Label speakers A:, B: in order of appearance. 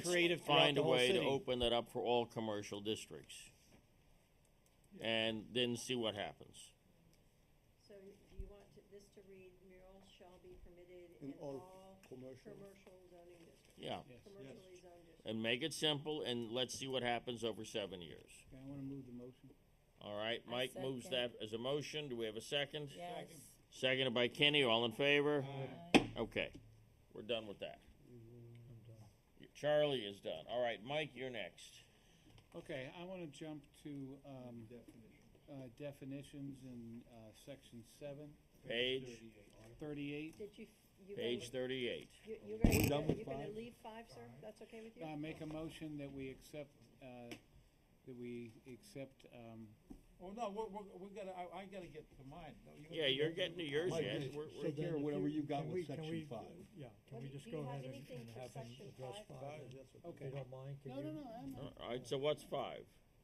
A: creative throughout
B: find
A: the
B: a
A: whole
B: way to
A: city.
B: open that up for all commercial districts. And then see what happens.
C: So do you want to- this to read murals shall be permitted
D: In
C: in
D: all
C: all
D: commercial.
C: commercial zoning districts,
B: Yeah,
C: commercially zoned districts?
B: and make it simple and let's see what happens over seven years.
E: Okay, I wanna move the motion.
B: All right,
F: I
B: Mike moves that
F: second.
B: as a motion. Do we have a second?
F: Yes.
B: Seconded by Kenny, all in favor?
F: Aye.
A: Uh-huh.
B: Okay, we're done with that.
A: Mm-hmm.
B: Charlie is done. All right, Mike, you're next.
E: Okay, I wanna jump to, um, uh, definitions in, uh, section seven,
B: Page,
E: thirty-eight.
C: Did you, you, gonna-
B: page thirty-eight.
C: you- you're gonna,
D: We're done with
C: you're gonna
D: five?
C: leave five, sir? That's okay with you?
E: I make a motion that we accept, uh, that we accept, um,
A: Well, Oh, no, we're, we're, we gotta, I, I gotta get to mine. No, you gotta
B: Yeah,
A: do
B: you're
A: that.
B: getting to yours
D: Mike,
B: yet.
D: it's-
B: We're-
D: So
B: we're-
D: take care of whatever you got
G: Can
D: with
G: we- can
D: section
G: we-
D: five.
G: Yeah,
C: What
G: can we
C: do-
G: just
C: do
G: go
C: you have
G: ahead and
C: anything
G: and
C: for
G: have him
C: section
G: address
C: five?
D: That's
G: five?
D: what-
G: If you
E: okay.
G: don't mind, can
E: No, no,
G: you?
E: no, I'm,
B: All right, so what's five?